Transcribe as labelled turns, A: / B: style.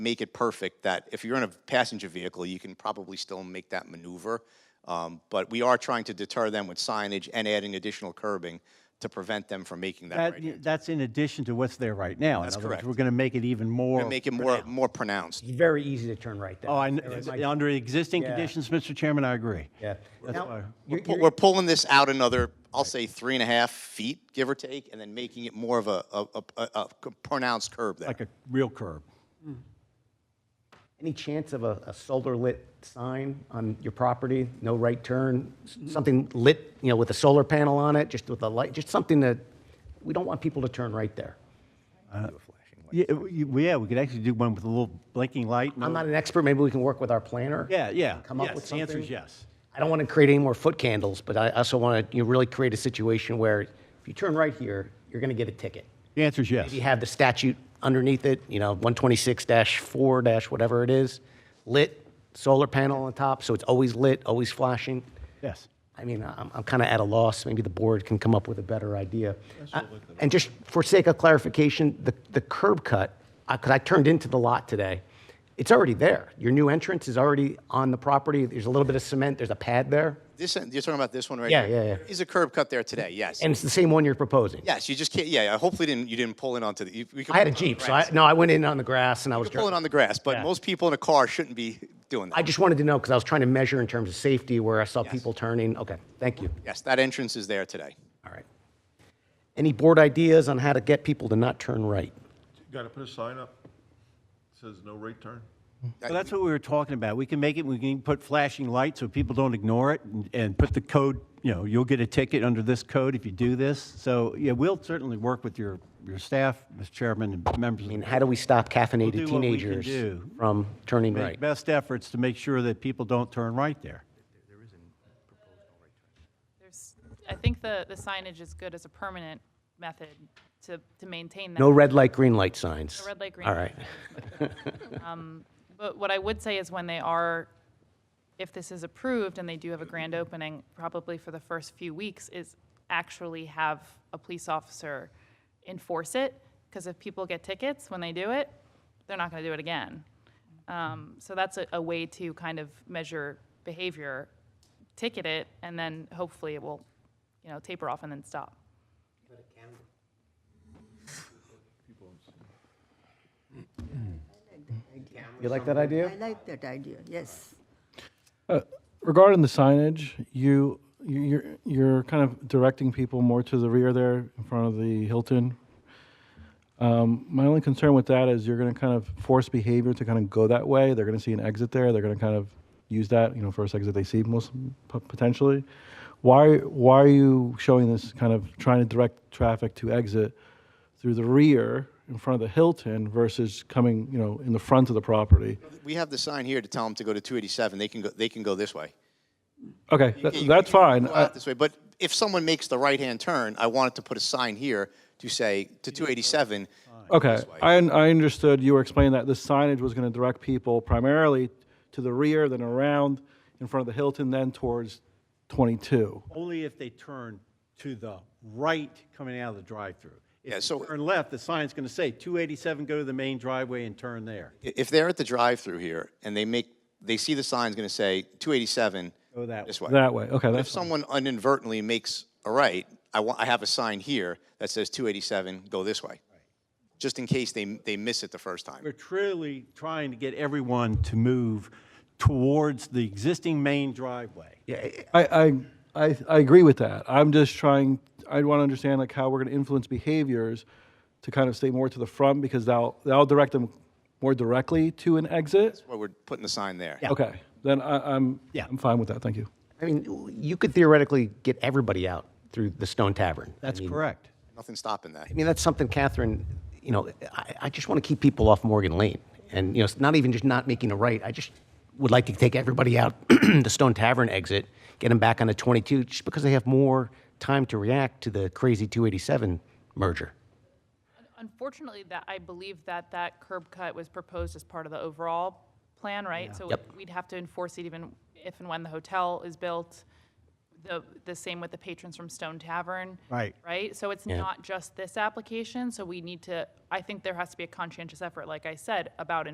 A: make it perfect that if you're in a passenger vehicle, you can probably still make that maneuver. Um, But we are trying to deter them with signage and adding additional curbing to prevent them from making that
B: That,
A: right.
B: that's in addition to what's there right now. That's
A: correct.
B: We're going to make it even more.
A: Make
C: Oh,
A: it more, more pronounced.
C: It's very easy to turn right there.
B: Oh, I, kn-
C: It might-
B: under existing
C: Yeah.
B: conditions, Mr. Chairman, I agree.
C: Yeah.
B: That's
C: Now,
B: why-
C: you're-
A: Pu-
C: you're-
A: We're pulling this out another, I'll say, three and a half feet, give or take, and then making it more of a, a, a- a, a pronounced curb there.
B: Like a real curb.
C: Any chance of a, a solar lit sign on your property? No right turn? S- Something lit, you know, with a solar panel on it, just with a light, just something that, we don't want people to turn right there.
B: Yeah, uh, you- yeah, we could actually do one with a little blinking light. no-
C: I'm not an expert, maybe we can work with our planner.
B: Yeah, yeah.
C: Come up
B: yes,
C: with
B: The answer is
C: something?
B: yes.
C: I don't want to create any more foot candles, but I also want to, you know, really create a situation where if you turn right here, you're going to get a ticket.
B: The answer is yes.
C: You have the statute underneath it, you know, 126-4- whatever it is, lit, solar panel on top, so it's always lit, always flashing.
B: Yes.
C: I mean, I'm, I'm kind of at a loss. Maybe the board can come up with a better idea. Uh, And just for sake of clarification, the, the curb cut, because I turned into the lot today, it's already there. Your new entrance is already on the property. There's a little bit of cement, there's a pad there,
A: This, you're talking about this one right
C: Yeah,
A: here?
C: yeah, yeah.
A: Is a curb cut there today, yes.
C: and it's the same one you're proposing.
A: Yes, you just can't, yeah, yeah, hopefully didn't, you didn't pull in onto the, you- we could.
C: I had a
A: pull it on the
C: Jeep, so
A: grass.
C: I, no, I went in on the grass and I was
A: You're pulling
C: driving.
A: on the grass, but
C: Yeah.
A: most people in a car shouldn't be doing
C: I
A: that.
C: just wanted to know, because I was trying to measure in terms of safety, where I saw people turning. Okay, thank you.
A: Yes, that entrance is there today.
C: All right. Any board ideas on how to get people to not turn right?
D: Got to put a sign up, says no right turn.
B: Well, that's what we were talking about. We can make it, we can put flashing lights so people don't ignore it and, and put the code, you know, you'll get a ticket under this code if you do this. So, yeah, we'll certainly work with your, your staff, Mr. Chairman, and members. of the
C: And how do we stop
B: We'll
C: caffeinated
B: do what we can
C: teenagers
B: do.
C: from turning
B: make
C: right?
B: best efforts to make sure that people don't turn right there.
E: There's, I think the, the signage is good as a permanent method to, to maintain that.
C: No red light, green light signs.
E: No red light, green
C: All
E: light.
C: right.
E: But what I would say is when they are, if this is approved and they do have a grand opening, probably for the first few weeks, is actually have a police officer enforce it. Because if people get tickets when they do it, they're not going to do it again. Um, So that's a, a way to kind of measure behavior, ticket it, and then hopefully it will, you know, taper off and then stop.
C: You like that idea?
F: I like that idea, yes.
G: regarding the signage, you you- you're you're kind of directing people more to the rear there in front of the Hilton. Um, my only concern with that is you're going to kind of force behavior to kind of go that way. They're going to see an exit there. They're going to kind of use that, you know, first exit they see most p- potentially. Why why are you showing this kind of trying to direct traffic to exit through the rear in front of the Hilton versus coming, you know, in the front of the property?
A: We have the sign here to tell them to go to 287, they can go, they can go this way.
G: Okay,
A: Yeah,
G: that,
A: you-
G: that's
A: you can
G: fine.
A: go
G: I-
A: out this way, but if someone makes the right-hand turn, I wanted to put a sign here to say to 287.
G: Okay,
A: way.
G: I, un- I understood you were explaining that the signage was going to direct people primarily to the rear, then around in front of the Hilton, then towards 22.
B: Only if they turn to the right coming out of the drive-through. If
A: Yeah,
B: they
A: so-
B: turn left, the sign's going to say 287, go to the main driveway and turn there.
A: I- If they're at the drive-through here and they make, they see the sign's going to say 287
B: Go that
A: this way.
G: That way, okay,
A: If
G: that's,
A: someone inadvertently makes a right, I want, I have a sign here that says 287, go this way. Just in case they, they miss it the first time.
B: We're truly trying to get everyone to move towards the existing main driveway.
G: I, I, I, I agree with that. I'm just trying, I want to understand like how we're going to influence behaviors to kind of stay more to the front because that'll, that'll direct them more directly to an exit.
A: Well, we're putting the sign there.
G: Okay, then I, I'm,
B: Yeah.
G: I'm fine with that, thank you.
C: I mean, you could theoretically get everybody out through the Stone Tavern.
B: That's correct.
A: Nothing stopping that.
C: I mean, that's something, Catherine, you know, I, I just want to keep people off Morgan Lane. And, you know, it's not even just not making a right. I just would like to take everybody out the Stone Tavern exit, get them back on the 22, just because they have more time to react to the crazy 287 merger.
E: Unfortunately, that, I believe that that curb cut was proposed as part of the overall plan, right? So
C: Yep.
E: we'd have to enforce it even if and when the hotel is built. The, the same with the patrons from Stone Tavern.
B: Right.
E: Right? So it's not just this application, so we need to, I think there has to be a conscientious effort, like I said, about